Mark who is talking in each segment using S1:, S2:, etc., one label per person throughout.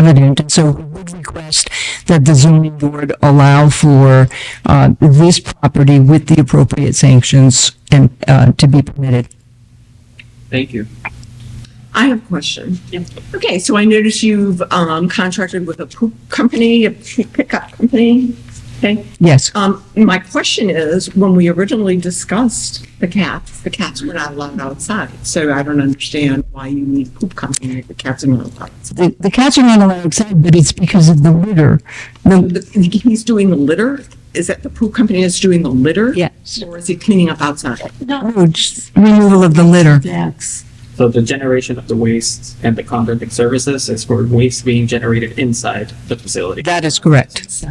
S1: evident, and so we would request that the zoning board allow for uh, this property with the appropriate sanctions and uh, to be permitted.
S2: Thank you.
S3: I have a question. Okay, so I noticed you've um, contracted with a poop company, a pickup company. Okay,
S1: Yes,
S3: um, my question is, when we originally discussed the cats, the cats were not allowed outside. So I don't understand why you need poop company if the cats are not allowed. outside.
S1: the, the cats are not allowed outside, but it's because of the litter. The-
S3: The- He's doing the litter? Is that the poop company is doing the litter?
S1: Yes.
S3: Or is he cleaning up outside?
S1: No, just removal of the litter.
S2: So the generation of the waste and the contracting services is for waste being generated inside the facility.
S1: That is correct.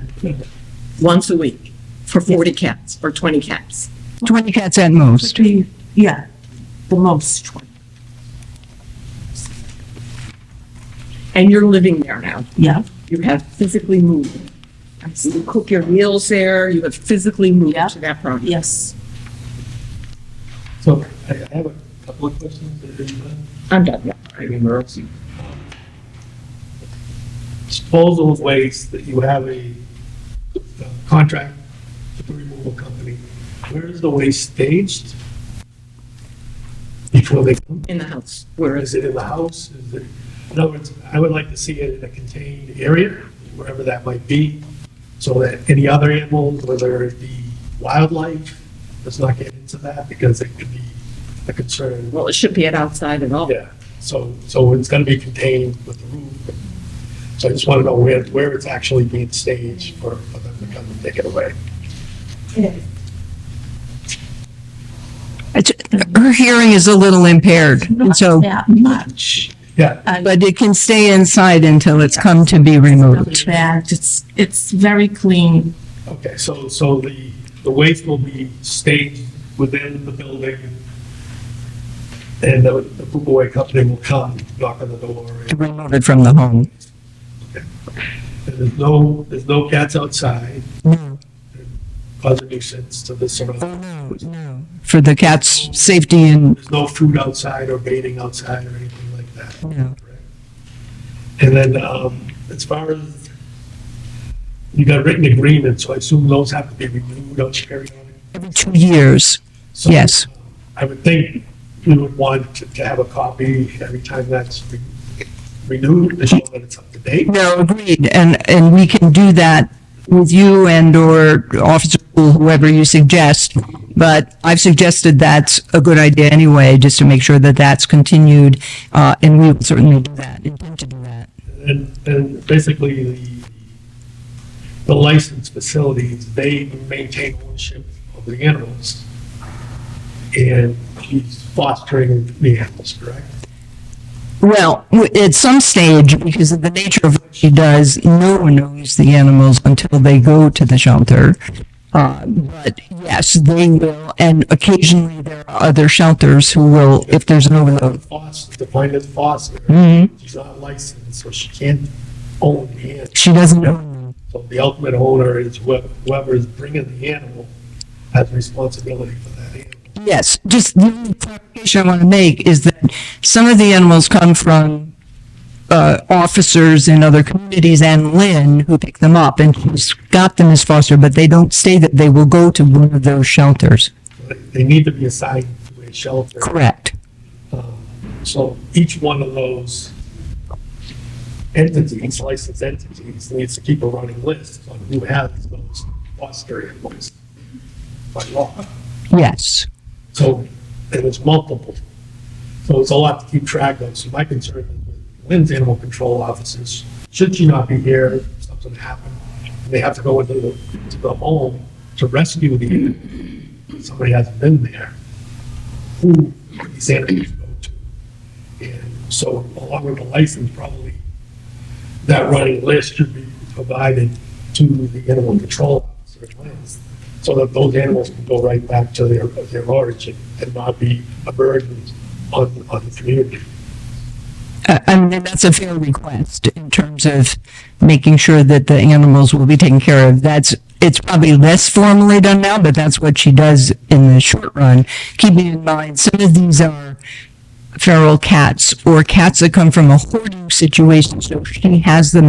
S3: Once a week for 40 cats or 20 cats?
S1: Twenty cats at most.
S4: be, yeah, the most twenty.
S3: And you're living there now?
S4: Yeah,
S3: You have physically moved. You cook your meals there, you have physically moved
S4: Yeah.
S3: to that property.
S4: yes.
S5: So I I have a couple of questions. that are in the-
S3: I'm done now.
S2: Maybe Merck's.
S5: Disposal of waste that you have a uh, contract with the removal company, where is the waste staged? Before they come,
S3: In the house, where is
S5: is it in the house? Is it, in other words, I would like to see it in a contained area, wherever that might be, so that any other animals, whether it be wildlife, does not get into that because it could be a concern.
S3: Well, it should be at outside at all.
S5: Yeah, so, so it's gonna be contained with the roof. So I just wanna know where, where it's actually being staged for, for them to come and take it away.
S1: It's- Her hearing is a little impaired, and
S4: Not
S1: so,
S4: That much.
S5: Yeah,
S1: but it can stay inside until it's come to be removed.
S4: Not bad. It's, it's very clean.
S5: okay, so, so the, the waste will be staged within the building. And the, the poop away company will come, knock on the door.
S1: To
S5: and-
S1: remove it from the home.
S5: and There's no, there's no cats outside,
S1: No,
S5: cause a nuisance to the surrounding.
S1: no, no. For the cat's safety and,
S5: There's no food outside or baiting outside or anything like that.
S1: no.
S5: And then, um, as far as, you got written agreements, so I assume those have to be renewed on periodic.
S1: every two years.
S5: So,
S1: Yes.
S5: I would think we would want to- to have a copy every time that's re- renewed, to show that it's up to date.
S1: No, agreed, and, and we can do that with you and or Officer Poole, whoever you suggest. But I've suggested that's a good idea anyway, just to make sure that that's continued, uh, and we will certainly do that, intend to do that.
S5: And, and basically, the, the licensed facilities, they maintain ownership of the animals. And he's fostering the animals, correct?
S1: Well, w- at some stage, because of the nature of what she does, no one knows the animals until they go to the shelter. Uh, but yes, they will, and occasionally there are other shelters who will, if there's an overload.
S5: Foster, defined as foster.
S1: Mhm.
S5: She's not licensed, so she can't own the animal.
S1: She doesn't own them.
S5: So the ultimate owner is whoever, whoever is bringing the animal has responsibility for that animal.
S1: Yes, just the only clarification I want to make is that some of the animals come from uh, officers in other communities and Lynn who pick them up and she's got them as foster, but they don't say that they will go to one of those shelters.
S5: They- They need to be assigned to a shelter.
S1: Correct.
S5: So each one of those entities, licensed entities, needs to keep a running list on who has those foster animals by law.
S1: Yes.
S5: So, and it's multiple. So it's a lot to keep track of. So my concern is with Lynn's animal control officers, should she not be here, if something happened, and they have to go into the, to the home to rescue the, animal, and somebody hasn't been there, who would these animals go to? And so along with the license, probably that running list should be provided to the animal control officer at Lynn's so that those animals can go right back to their, their origin and not be a burden on, on the community.
S1: I Uh, I mean, and that's a fair request in terms of making sure that the animals will be taken care of. That's, it's probably less formally done now, but that's what she does in the short run. Keeping in mind, some of these are feral cats or cats that come from a hoarding situation, so she has them